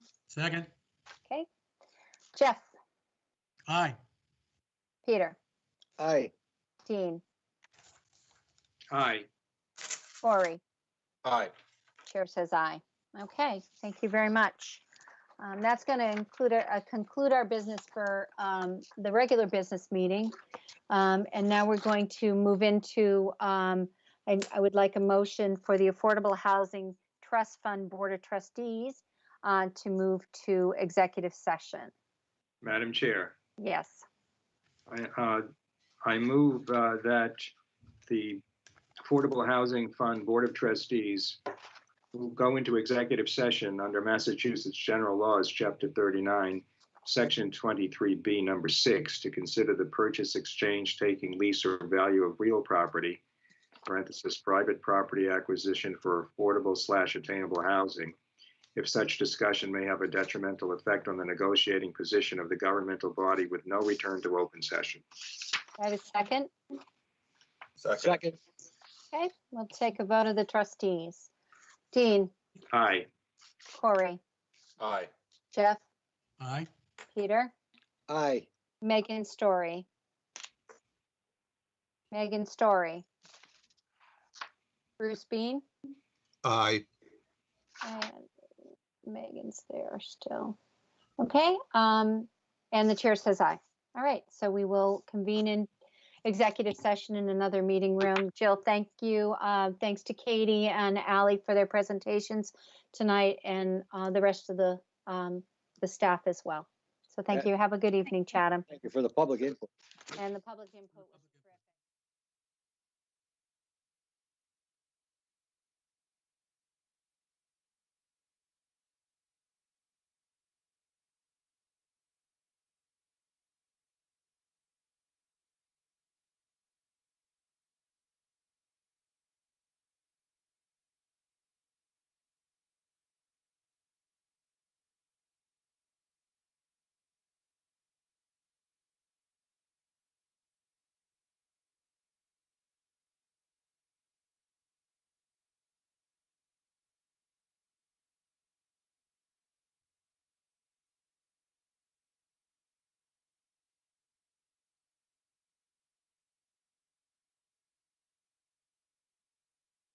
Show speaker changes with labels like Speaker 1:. Speaker 1: Second,
Speaker 2: Okay. Jeff,
Speaker 1: aye.
Speaker 2: Peter,
Speaker 3: Aye.
Speaker 2: Dean,
Speaker 4: Aye.
Speaker 2: Lori.
Speaker 3: Aye.
Speaker 2: Chair says aye. Okay, thank you very much. Um, That's going to include, our- uh, conclude our business for um, the regular business meeting. Um, And now we're going to move into, um, and I would like a motion for the Affordable Housing Trust Fund Board of Trustees uh, to move to executive session.
Speaker 4: Madam Chair,
Speaker 2: Yes,
Speaker 4: I, uh, I move uh, that the Affordable Housing Fund Board of Trustees will go into executive session under Massachusetts General Laws, Chapter 39, Section 23B, Number 6, to consider the purchase, exchange, taking, lease, or value of real property, parenthesis, private property acquisition for affordable slash attainable housing, if such discussion may have a detrimental effect on the negotiating position of the governmental body with no return to open session.
Speaker 2: I have a second.
Speaker 3: Second.
Speaker 5: Second,
Speaker 2: Okay, we'll take a vote of the trustees. Dean,
Speaker 4: Aye.
Speaker 2: Corey,
Speaker 3: Aye.
Speaker 2: Jeff,
Speaker 1: Aye.
Speaker 2: Peter?
Speaker 3: Aye.
Speaker 2: Megan Story. Megan Story. Bruce Bean.
Speaker 5: aye.
Speaker 2: and Megan's there still. Okay, um, and the chair says aye. All right, so we will convene in executive session in another meeting room. Jill, thank you. Uh, thanks to Katie and Ally for their presentations tonight and, uh, the rest of the, um, the staff as well. So thank you. Have a good evening, Chatham
Speaker 3: Thank you for the public input.
Speaker 2: and the public input. was-